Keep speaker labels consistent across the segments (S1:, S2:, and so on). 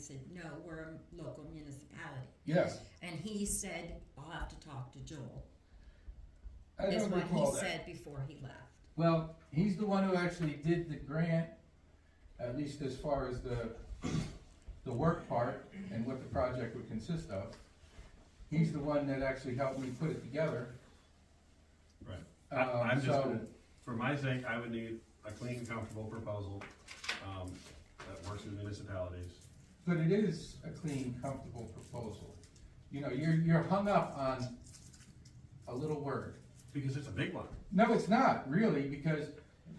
S1: I said, no, we're a local municipality.
S2: Yes,
S1: And he said, I'll have to talk to Joel,
S2: I
S1: is
S2: don't
S1: what
S2: recall
S1: he
S2: that.
S1: said before he left.
S2: Well, he's the one who actually did the grant, at least as far as the, the work part and what the project would consist of. He's the one that actually helped me put it together.
S3: Right.
S2: Um,
S3: I- I'm just
S2: so-
S3: gonna, for my sake, I would need a clean, comfortable proposal, um, that works with municipalities.
S2: But it is a clean, comfortable proposal. You know, you're, you're hung up on a little word.
S3: Because it's a big one.
S2: No, it's not really, because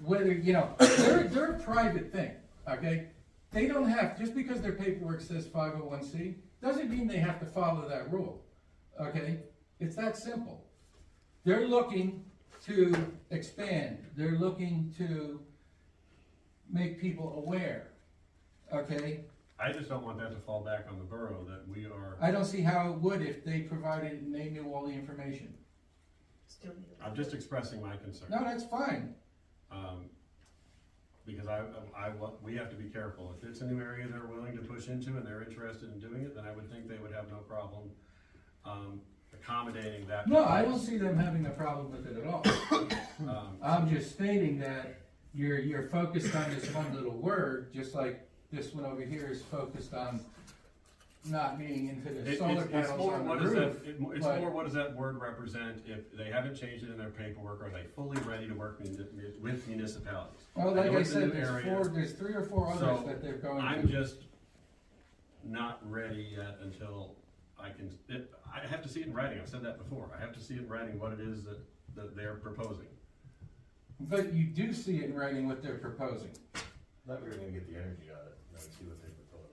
S2: whether, you know, they're, they're a private thing, okay? They don't have, just because their paperwork says five oh one C, doesn't mean they have to follow that rule, okay? It's that simple. They're looking to expand, they're looking to make people aware, okay?
S3: I just don't want that to fall back on the borough, that we are,
S2: I don't see how it would if they provided and they knew all the information.
S4: Still need a-
S3: I'm just expressing my concern.
S2: No, that's fine,
S3: Um, because I, I, wa- we have to be careful. If it's a new area they're willing to push into and they're interested in doing it, then I would think they would have no problem, um, accommodating that.
S2: no, I don't see them having a problem with it at all.
S3: Um,
S2: I'm just stating that you're, you're focused on this one little word, just like this one over here is focused on not being into
S3: It-
S2: the
S3: It's,
S2: solar
S3: it's
S2: panels
S3: more,
S2: on the
S3: what does that,
S2: roof.
S3: it- it's
S2: but-
S3: more, what does that word represent if they haven't changed it in their paperwork? Are they fully ready to work muni- with municipalities?
S2: Well, like
S3: know
S2: I
S3: it's a
S2: said,
S3: new
S2: there's
S3: area.
S2: four, there's three or four others
S3: So,
S2: that they're going
S3: I'm
S2: to.
S3: just not ready yet until I can, it- I have to see it in writing. I've said that before. I have to see it in writing what it is that, that they're proposing.
S2: But you do see it in writing what they're proposing.
S5: Thought we were gonna get the energy audit, and then see what they propose.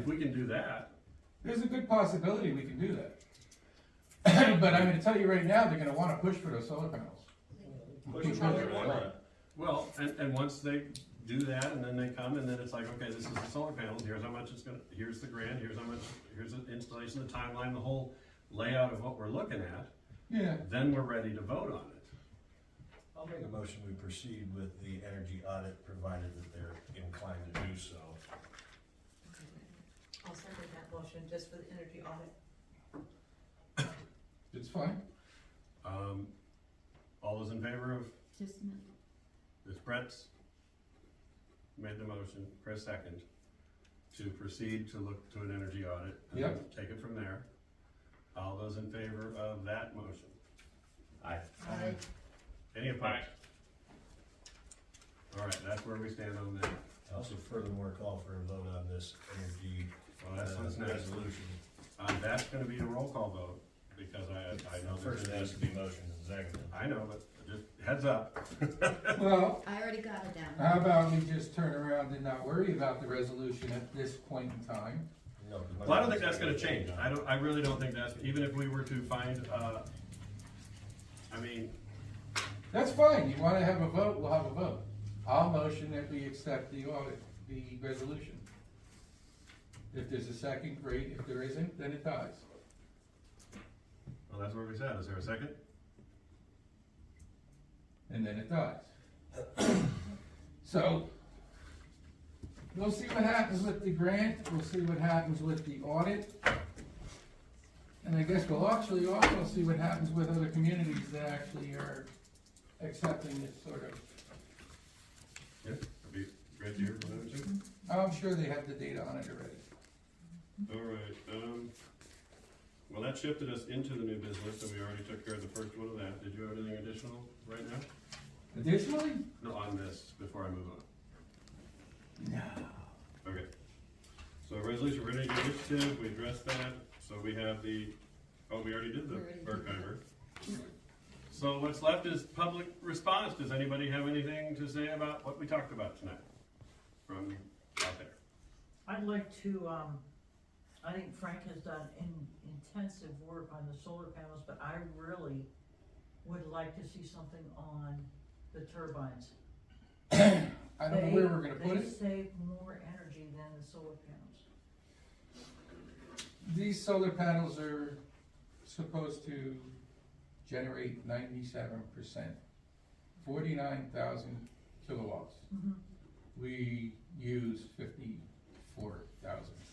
S3: If we can do that,
S2: There's a good possibility we can do that. But I'm gonna tell you right now, they're gonna wanna push for those solar panels.
S3: push it
S2: Probably
S3: further on. Well, and, and once they do that, and then they come, and then it's like, okay, this is the solar panels, here's how much it's gonna, here's the grant, here's how much, here's the installation, the timeline, the whole layout of what we're looking at,
S2: Yeah,
S3: then we're ready to vote on it.
S5: I'll make a motion, we proceed with the energy audit, provided that they're inclined to do so.
S4: I'll second that motion just for the energy audit.
S2: it's fine.
S3: Um, all those in favor of,
S6: Just a minute.
S3: this Brett's made the motion, Chris second, to proceed to look to an energy audit. and then Take it from there. All those in favor of that motion? Aye.
S4: Aye.
S3: Any opposed? All right, that's where we stand on that.
S5: Also furthermore, call for a vote on this energy
S3: Well,
S5: uh,
S3: that's what's next.
S5: resolution.
S3: Um, that's gonna be a roll call vote, because I, I know
S5: First,
S3: there's,
S5: it has to be motion and second.
S3: I know, but just heads up.
S2: Well,
S6: I already got it down.
S2: How about we just turn around and not worry about the resolution at this point in time?
S5: No, 'cause my-
S3: Well, I don't think that's gonna change. I don't, I really don't think that's, even if we were to find, uh, I mean,
S2: That's fine, you wanna have a vote, we'll have a vote. I'll motion that we accept the audit, the resolution. If there's a second, great, if there isn't, then it dies.
S3: well, that's where we said. Is there a second?
S2: and then it dies. So, we'll see what happens with the grant, we'll see what happens with the audit. And I guess we'll actually also see what happens with other communities that actually are accepting this sort of,
S3: Yeah, that'd be great to hear from them too.
S2: I'm sure they have the data on it already.
S3: All right, um, well, that shifted us into the new business, and we already took care of the first one of that. Did you have anything additional right now?
S2: Additionally,
S3: No, on this, before I move on? No. Okay. So resolution for energy initiative, we addressed that, so we have the, oh, we already did the
S6: We already did
S3: bird
S6: that.
S3: timer. So what's left is public response. Does anybody have anything to say about what we talked about tonight from out there?
S7: I'd like to, um, I think Frank has done in, intensive work on the solar panels, but I really would like to see something on the turbines.
S2: I don't know where we're gonna put
S7: They
S2: it.
S7: save more energy than the solar panels.
S2: These solar panels are supposed to generate ninety-seven percent, forty-nine thousand kilowatts.
S7: Mhm.
S2: We use fifty-four thousand.